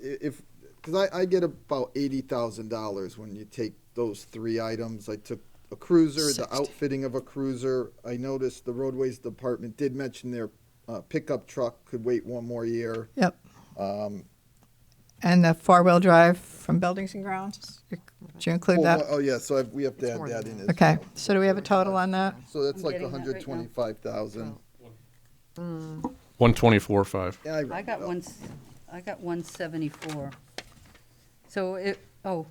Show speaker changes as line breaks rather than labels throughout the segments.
if because I, I get about eighty thousand dollars when you take those three items. I took a cruiser, the
60.
outfitting of a cruiser. I noticed the roadways department did mention their uh, pickup truck could wait one more year.
Yep. And the four-wheel drive from buildings and grounds, did you include
Oh,
that?
oh, yeah, so I've, we have to add that in. as
Okay,
well.
so do we have a total on that?
So that's like
getting
one
that right now.
hundred twenty-five thousand.
One twenty-four, five.
Yeah,
I
rounded
got
up.
one, s- I got one seventy-four. So it, oh,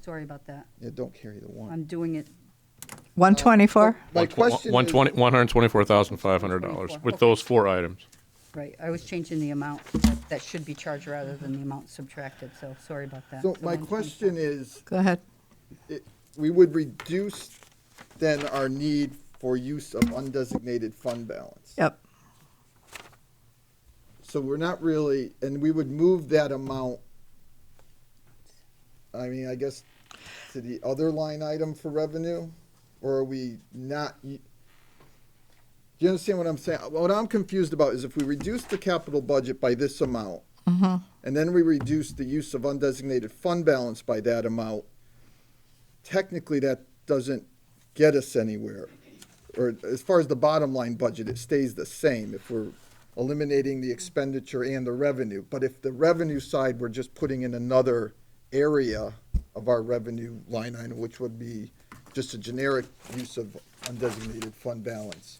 sorry about that.
Yeah, don't carry the one.
I'm doing it,
124?
My question
One
is-
twenty, one hundred twenty-four thousand, five hundred dollars with those four items.
right, I was changing the amount that should be charged rather than the amount subtracted, so sorry about that.
So
The
my
124.
question is,
Go ahead.
it- we would reduce then our need for use of undesignated fund balance.
Yep,
So we're not really, and we would move that amount, I mean, I guess, to the other line item for revenue? Or are we not, y- do you understand what I'm saying? What I'm confused about is if we reduce the capital budget by this amount, and then we reduce the use of undesignated fund balance by that amount, technically that doesn't get us anywhere. Or as far as the bottom line budget, it stays the same if we're eliminating the expenditure and the revenue. But if the revenue side, we're just putting in another area of our revenue line item, which would be just a generic use of undesignated fund balance.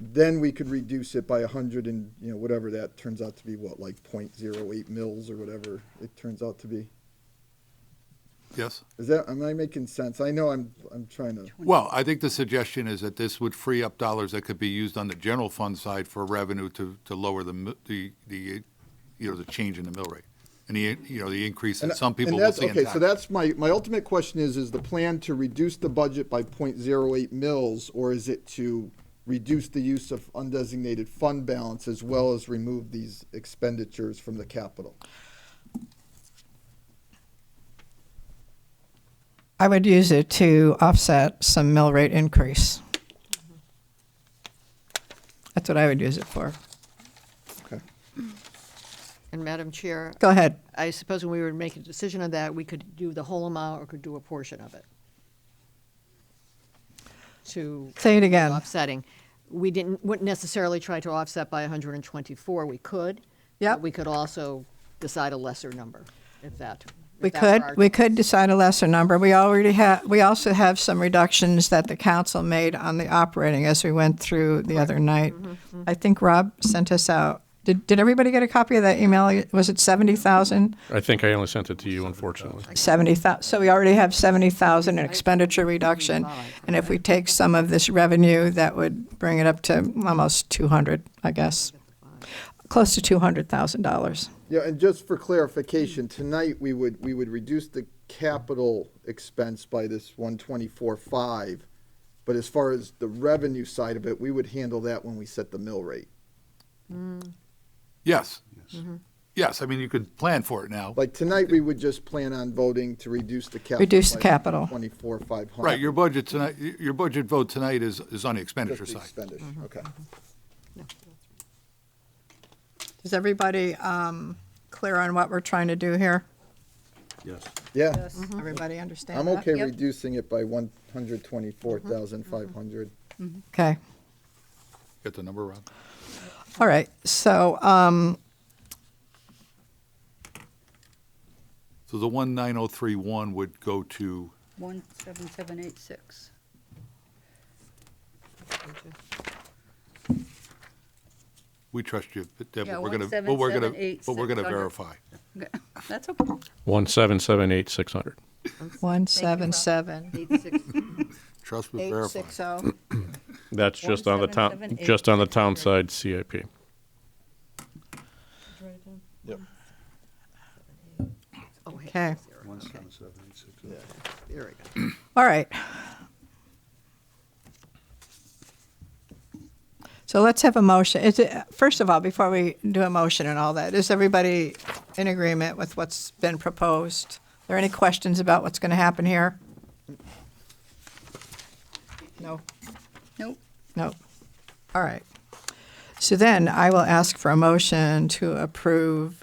Then we could reduce it by a hundred and, you know, whatever that turns out to be, what, like point zero eight mils or whatever it turns out to be.
Yes.
Is that, am I making sense? I know I'm, I'm trying to,
Well, I think the suggestion is that this would free up dollars that could be used on the general fund side for revenue to, to lower the, mi- the, the, you know, the change in the mill rate. And the, you know, the increase
and
that some
and
people will
that's-
see in
Okay, so
tax.
that's my, my ultimate question is, is the plan to reduce the budget by point zero eight mils? Or is it to reduce the use of undesignated fund balance as well as remove these expenditures from the capital?
I would use it to offset some mill rate increase. That's what I would use it for.
Okay.
And Madam Chair,
Go ahead.
I suppose when we were to make a decision on that, we could do the whole amount or could do a portion of it. To
Say it again.
offsetting. We didn't, wouldn't necessarily try to offset by 124, we could. but
Yep.
We could also decide a lesser number, if that. if
We
that were
could,
our
we
choice.
could decide a lesser number. We already have, we also have some reductions that the council made on the operating as we went through the other night. I think Rob sent us out. Did, did everybody get a copy of that email? Was it 70,000?
I think I only sent it to you, unfortunately.
70,000, so we already have 70,000 in expenditure reduction. And if we take some of this revenue, that would bring it up to almost 200, I guess. Close to $200,000.
Yeah, and just for clarification, tonight, we would, we would reduce the capital expense by this one twenty-four five. But as far as the revenue side of it, we would handle that when we set the mill rate.
Yes. Yes, I mean, you could plan for it now.
Like tonight, we would just plan on voting to reduce the capital.
Reduce the
by
capital.
Twenty-four, five hundred.
Right, your budget tonight, y- your budget vote tonight is, is on the expenditure
Just the
side.
expenditure,
Mm-hmm.
okay.
Is everybody um, clear on what we're trying to do here?
Yeah,
Mm-hmm.
Everybody understand
I'm
that?
okay
Yep.
reducing it by one hundred twenty-four
Mm-hmm.
thousand, five hundred.
Okay,
Get the number, Rob?
all right, so, um,
So the 19031 would go to,
One seven seven eight six.
we trust you, but Deb,
Yeah,
but we're going to, but we're going to, but we're going to
1778600.
verify.
That's okay.
One seven seven eight six hundred.
177.
Eight six.
Trust but verify.
860.
That's just on the town,
177,800.
just on the town side CIP.
Oh,
Okay.
hey, zero, okay. There we go.
All right. So let's have a motion. Is it, first of all, before we do a motion and all that, is everybody in agreement with what's been proposed? Are there any questions about what's going to happen here? No.
Nope,
Nope. All right. So then I will ask for a motion to approve